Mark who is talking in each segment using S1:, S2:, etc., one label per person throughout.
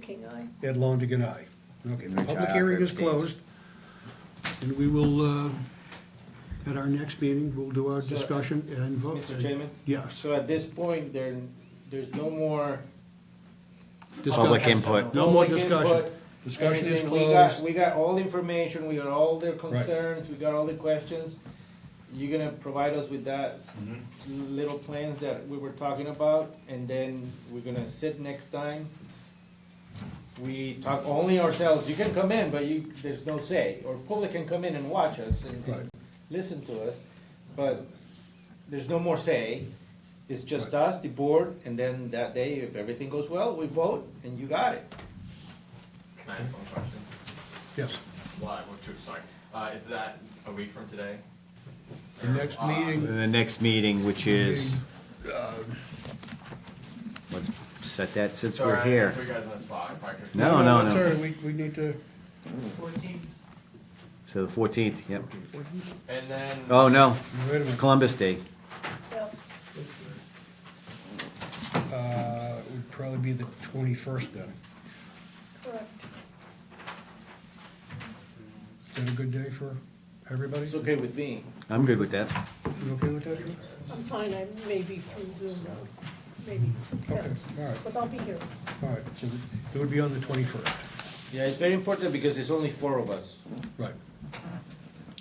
S1: King, aye.
S2: Ed Longigan, aye. Okay, the
S3: Rich,
S2: public
S3: aye.
S2: hearing is
S3: Rich, yes.
S2: closed. And we will, uh, at our next meeting, we'll do our
S4: So,
S2: discussion and vote.
S4: Mr. Chairman?
S2: Yes.
S4: So at this point, there, there's no more.
S3: Public
S2: Discussion.
S3: input.
S2: No more
S4: public
S2: discussion.
S4: input,
S2: Discussion is
S4: everything. We got,
S2: closed.
S4: we got all the information, we got all their concerns, we got all the questions. You're gonna provide us with that
S2: Mm-hmm.
S4: little plans that we were talking about, and then we're gonna sit next time. We talk only ourselves, you can come in, but you, there's no say, or public can come in and watch us and,
S2: Right.
S4: and listen to us, but there's no more say. It's just us, the board, and then that day, if everything goes well, we vote, and you got it.
S5: Can I ask one question?
S2: Yes.
S5: Why, what to, sorry, uh, is that a week from today?
S2: The next meeting, uh,
S3: The next meeting, which Uh, is, let's set that since we're
S5: Sorry, I
S3: here.
S5: put you guys on the spot, if I could-
S3: No, no,
S2: I'm
S3: no.
S2: Sorry, we, we need to,
S3: So the fourteenth, yep.
S5: And then,
S3: Oh, no,
S2: wait a
S3: it's
S2: minute.
S3: Columbus Day.
S1: Well,
S2: Uh, it would probably be the twenty-first then.
S1: correct.
S2: Is that a good day for everybody?
S4: It's okay with me.
S3: I'm good with that.
S2: You okay with that? Jim?
S1: I'm fine, I may be through Zoom though, maybe.
S2: Okay, all right,
S1: But I'll be here.
S2: all right. So it would be on the twenty-first,
S4: Yeah, it's very important because it's only four of us.
S2: right.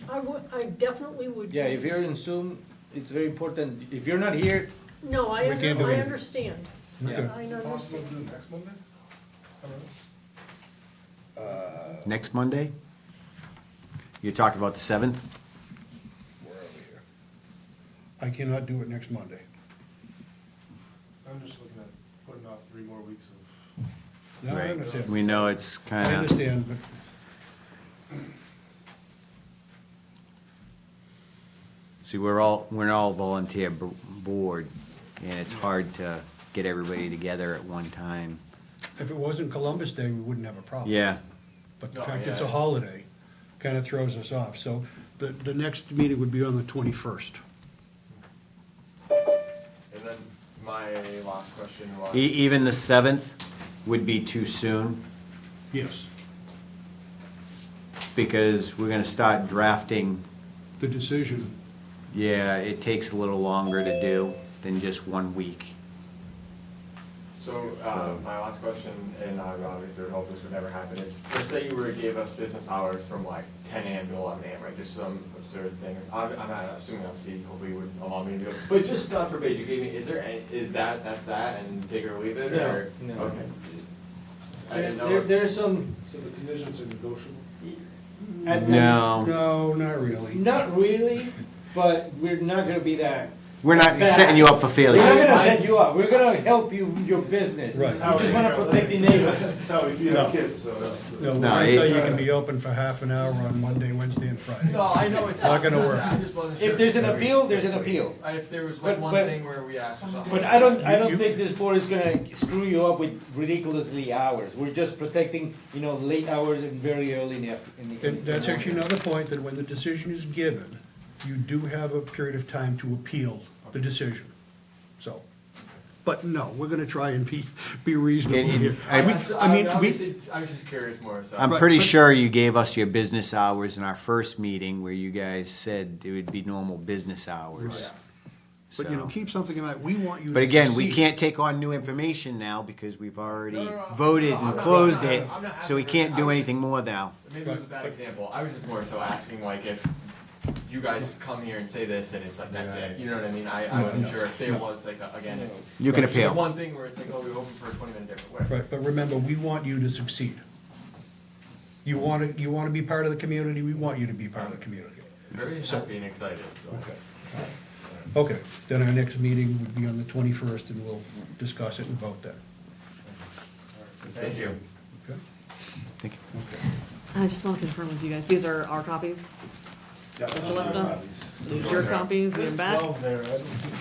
S1: I would, I definitely would.
S4: Yeah, if you're in Zoom, it's very important. If you're not here,
S1: No, I,
S2: We can't
S1: under-
S2: do
S1: I
S2: it.
S1: understand.
S2: Okay.
S4: yeah.
S1: I
S6: Is it possible
S1: understand.
S6: to do it next Monday? Hello?
S3: Next Monday? You're talking about the seventh?
S2: Where are we here? I cannot do it next Monday.
S6: I'm just looking at putting off three more weeks of
S2: No, I understand.
S3: We know uh, it's
S2: I
S3: kind of,
S2: understand, but
S3: see, we're all, we're all volunteer b- board, and it's hard to get everybody together at one time.
S2: if it wasn't Columbus Day, we wouldn't have a problem.
S3: Yeah,
S2: But the
S5: No,
S2: fact it's a
S5: yeah.
S2: holiday kind of throws us off. So the, the next meeting would be on the twenty-first.
S5: and then my last question was.
S3: e- even the seventh would be too soon.
S2: Yes,
S3: because we're gonna start drafting,
S2: the decision.
S3: yeah, it takes a little longer to do than just one week.
S5: So, uh,
S3: Um,
S5: my last question, and I obviously would hope this would never happen, is, let's say you were, gave us business hours from like ten AM to eleven AM, right, just some absurd thing, I'm, I'm not assuming I'm seeing, hopefully you would allow me to do it, but just God forbid, you gave me, is there any, is that, that's that, and take it or leave it,
S4: No,
S5: or?
S4: no.
S5: Okay. I
S4: There,
S5: didn't know.
S4: there-
S5: if-
S4: there's some,
S6: So the conditions are negotiable?
S4: at-
S3: No,
S2: No, not really.
S4: not really, but we're not gonna be that.
S3: we're not setting you up for
S4: We're not
S3: failure.
S4: gonna set you up. We're gonna help you, with your business.
S2: Right.
S4: We just wanna protect the neighbors.
S6: That's how we feed
S2: No.
S6: our kids, so.
S2: No,
S3: No,
S2: I thought
S3: it-
S2: you can be open for half an hour on Monday, Wednesday, and Friday.
S5: No, I know it's
S2: Not
S5: not,
S2: gonna
S5: it's not
S2: work.
S5: that. I just wasn't sure.
S4: If there's an appeal, there's an appeal.
S5: Uh, If there was
S4: But-
S5: like one
S4: but-
S5: thing where we asked for something.
S4: But I don't, I
S2: You-
S4: don't think this board is gonna screw you up with ridiculously hours. We're just protecting, you know, late hours and very early in the, after- in the.
S2: And that's actually another point, that when the decision is given, you do have a period of time to appeal the decision, so. But no, we're gonna try and be, be reasonable
S3: And- and
S2: here.
S3: I-
S2: We-
S5: That's-
S2: I mean, we,
S5: obviously, I was just curious more, so.
S3: I'm
S2: Right,
S3: pretty
S2: but-
S3: sure you gave us your business hours in our first meeting where you guys said it would be normal business hours.
S2: Right. but you know,
S3: So-
S2: keep something in mind, we want you to
S3: But again, we
S2: succeed.
S3: can't take on new information now because we've
S5: No,
S3: already
S5: no, no, I'm-
S3: voted
S5: no, I'm
S3: and
S5: not-
S3: closed
S5: I'm not-
S3: it,
S5: I'm not
S3: so we
S5: asking for
S3: can't
S5: that.
S3: do anything more now.
S5: Maybe it was a bad example. I was just more so asking like if you guys come here and say this and it's like, that's it, you know what I mean? I, I
S2: No,
S5: wasn't
S2: no,
S5: sure if there
S2: no.
S5: was like, a- again, if.
S3: You can
S5: if there's
S3: appeal.
S5: one thing where it's like, oh, we open for a twenty minute different way.
S2: Right, but remember, we want you to succeed. You want to, you want to be part of the community, we want you to be part of the community.
S5: Very happy and excited, so.
S2: Okay. Okay, then our next meeting would be on the twenty-first, and we'll discuss it and vote then.
S5: Thank you.
S2: Okay?
S3: Thank you.
S7: I just want to confirm with you guys, these are our copies? Us, these are your copies, we have back?
S6: Twelve there, I don't think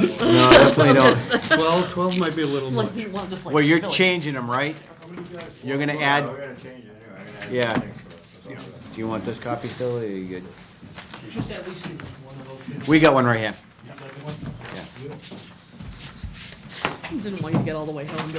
S6: we need twelve.
S3: No, definitely don't.
S2: Twelve, twelve might be a little
S7: Like,
S2: much.
S7: do you want just like?
S3: Well, you're
S7: really-
S3: changing them, right? You're gonna add. We're gonna change it anyway. Yeah. Do you want this copy still, or are you good?
S8: Just at least give us one of those.
S3: We got one right here.
S8: Yeah, like one.
S3: Yeah.
S7: Didn't want you to get all the way home and be like,